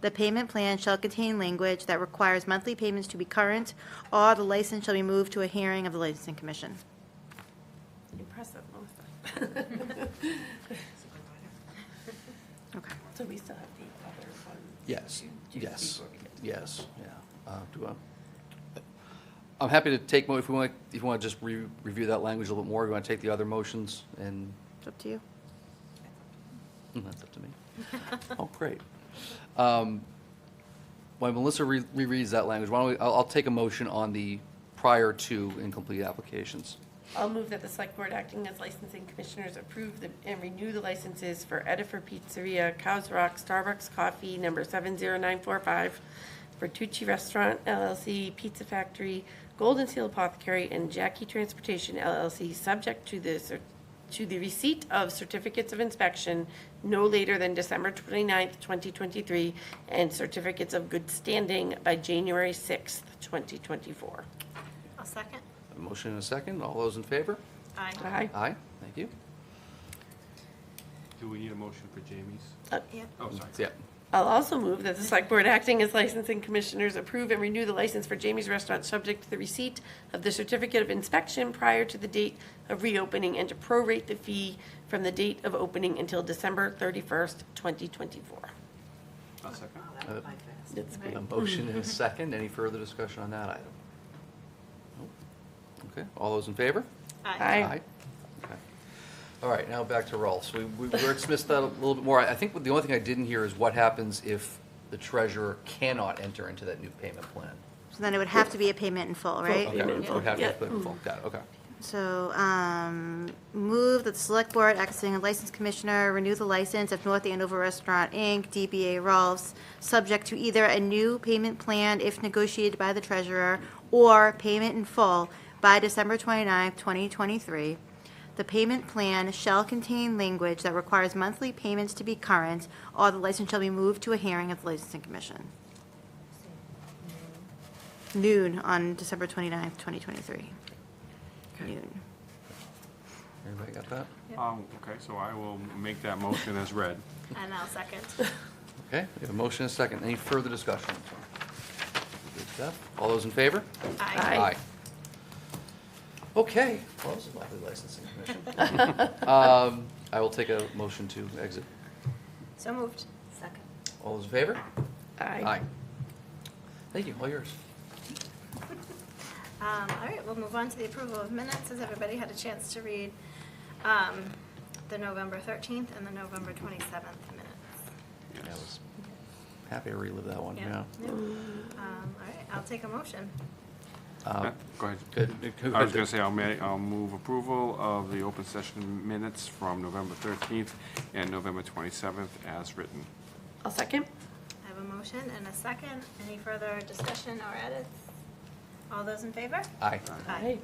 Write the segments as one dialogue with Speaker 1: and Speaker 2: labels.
Speaker 1: The payment plan shall contain language that requires monthly payments to be current, or the license shall be moved to a hearing of the licensing commission.
Speaker 2: Impressive, Melissa.
Speaker 1: Okay.
Speaker 2: So we still have the other one.
Speaker 3: Yes,
Speaker 2: to do
Speaker 3: yes,
Speaker 2: before we get to-
Speaker 3: yes, yeah. Uh, Do I, I'm happy to take, mo- if we want, if you want to just re- review that language a little bit more, you want to take the other motions and,
Speaker 1: It's up to you.
Speaker 3: mm, that's up to me. Oh, great. Um, While Melissa re- rereads that language, why don't we, I'll, I'll take a motion on the prior to incomplete applications.
Speaker 2: I'll move that the select board acting as licensing commissioners approve the- and renew the licenses for Edifer Pizzeria, Cows Rock, Starbucks Coffee, number 70945, Bertucci Restaurant LLC, Pizza Factory, Golden Seal Apothecary, and Jackie Transportation LLC, subject to the, cer- to the receipt of certificates of inspection no later than December 29th, 2023, and certificates of good standing by January 6th, 2024.
Speaker 4: A second?
Speaker 3: A motion and a second, all those in favor?
Speaker 4: Aye.
Speaker 2: Aye.
Speaker 3: Aye, thank you.
Speaker 5: Do we need a motion for Jamie's?
Speaker 4: Yep.
Speaker 5: Oh, sorry.
Speaker 3: Yeah,
Speaker 2: I'll also move that the select board acting as licensing commissioners approve and renew the license for Jamie's Restaurant subject to the receipt of the certificate of inspection prior to the date of reopening and to prorate the fee from the date of opening until December thirty-first, twenty twenty-four.
Speaker 5: I'll second.
Speaker 3: Uh,
Speaker 2: That's
Speaker 3: A motion and a second, any further discussion on that item? Nope. Okay, all those in favor?
Speaker 4: Aye.
Speaker 2: Aye.
Speaker 3: Okay. All right, now back to Rolfs. We we dismissed that a little bit more. I I think the only thing I didn't hear is what happens if the treasurer cannot enter into that new payment plan?
Speaker 1: So then it would have to be a payment in full, right?
Speaker 3: Okay,
Speaker 2: Payment in full,
Speaker 3: we have to
Speaker 2: yeah.
Speaker 3: put it in full. Got it, okay.
Speaker 1: So, um, move that the select board, acting as license commissioner, renew the license of North Andover Restaurant, Inc., DBA Rolfs, subject to either a new payment plan if negotiated by the treasurer, or payment in full by December 29th, 2023. The payment plan shall contain language that requires monthly payments to be current, or the license shall be moved to a hearing of the licensing commission. Noon on December 29th, 2023. Noon.
Speaker 3: Everybody got that?
Speaker 5: Um, okay, so I will make that motion as read.
Speaker 4: And I'll second.
Speaker 3: Okay, we have a motion and a second. Any further discussion? Good stuff. All those in favor?
Speaker 2: Aye.
Speaker 3: Okay, well, this is lovely licensing commission. Um, I will take a motion to exit.
Speaker 4: So moved. Second.
Speaker 3: All those in favor?
Speaker 2: Aye.
Speaker 3: Thank you, all yours.
Speaker 4: Um, all right, we'll move on to the approval of minutes. Has everybody had a chance to read, um, the November thirteenth and the November twenty-seventh minutes?
Speaker 3: Yeah, I was Happy to relive that one, yeah.
Speaker 4: Yeah. Um, all right, I'll take a motion.
Speaker 3: Uh,
Speaker 5: Go ahead.
Speaker 3: Good.
Speaker 5: I was gonna say, I'll ma, I'll move approval of the open session minutes from November thirteenth and November twenty-seventh as written.
Speaker 2: I'll second.
Speaker 4: I have a motion and a second. Any further discussion or edits? All those in favor?
Speaker 3: Aye.
Speaker 4: Aye.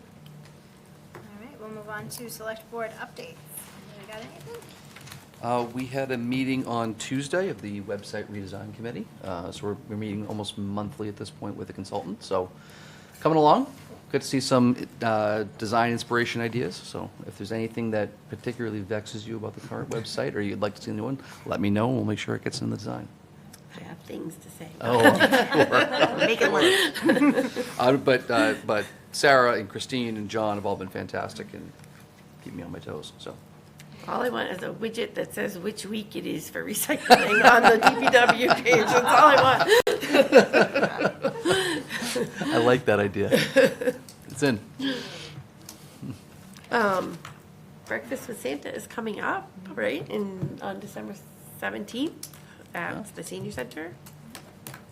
Speaker 4: All right, we'll move on to select board updates. Anybody got anything?
Speaker 3: Uh, We had a meeting on Tuesday of the website redesign committee, Uh, so we're, we're meeting almost monthly at this point with a consultant, so coming along. Good to see some uh, design inspiration ideas, so if there's anything that particularly vexes you about the current website, or you'd like to see a new one, let me know, and we'll make sure it gets in the design.
Speaker 2: I have things to say.
Speaker 3: Oh,
Speaker 1: Make it late.
Speaker 3: Uh, But, uh, but Sarah and Christine and John have all been fantastic and keep me on my toes, so.
Speaker 2: All I want is a widget that says which week it is for recycling on the DPW page. That's all I want.
Speaker 3: I like that idea. It's in.
Speaker 2: Um, Breakfast with Santa is coming up, right, in, on December seventeenth
Speaker 3: Yeah.
Speaker 2: at the senior center.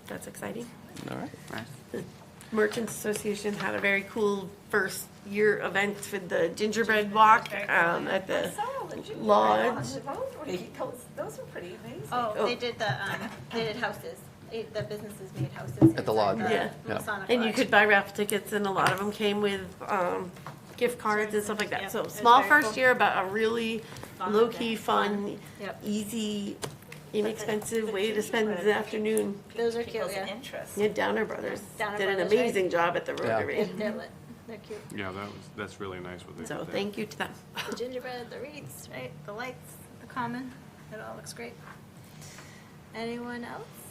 Speaker 2: That's exciting.
Speaker 3: All right.
Speaker 2: Merchants Association had a very cool first year event with the gingerbread walk, um, at the lodge.
Speaker 6: Those are pretty amazing.
Speaker 4: Oh, they did the, um, they did houses. They- The businesses made houses.
Speaker 3: At the lodge.
Speaker 2: Yeah.
Speaker 4: Masonic
Speaker 2: And you
Speaker 4: lodge.
Speaker 2: could buy raffle tickets and a lot of them came with, um, gift cards and stuff like
Speaker 4: Yeah,
Speaker 2: that.
Speaker 4: it
Speaker 2: So
Speaker 4: was
Speaker 2: small
Speaker 4: very
Speaker 2: first
Speaker 4: cool.
Speaker 2: year, but a really
Speaker 4: Fun,
Speaker 2: low-key,
Speaker 4: yeah.
Speaker 2: fun,
Speaker 4: Yep.
Speaker 2: easy, inexpensive
Speaker 6: the
Speaker 2: way to spend
Speaker 6: gingerbread
Speaker 2: the afternoon.
Speaker 4: Those are cute,
Speaker 6: People's
Speaker 4: yeah.
Speaker 6: interest.
Speaker 2: Yeah, Downer Brothers
Speaker 4: Downer
Speaker 2: did an
Speaker 4: Brothers, right?
Speaker 2: amazing job at the
Speaker 3: Yeah.
Speaker 2: Rotary.
Speaker 4: They're lit. They're cute.
Speaker 5: Yeah, that was, that's really nice what they did
Speaker 2: So
Speaker 5: there.
Speaker 2: thank you to them.
Speaker 4: The gingerbread, the wreaths, right? The lights, the common. It all looks great. Anyone else?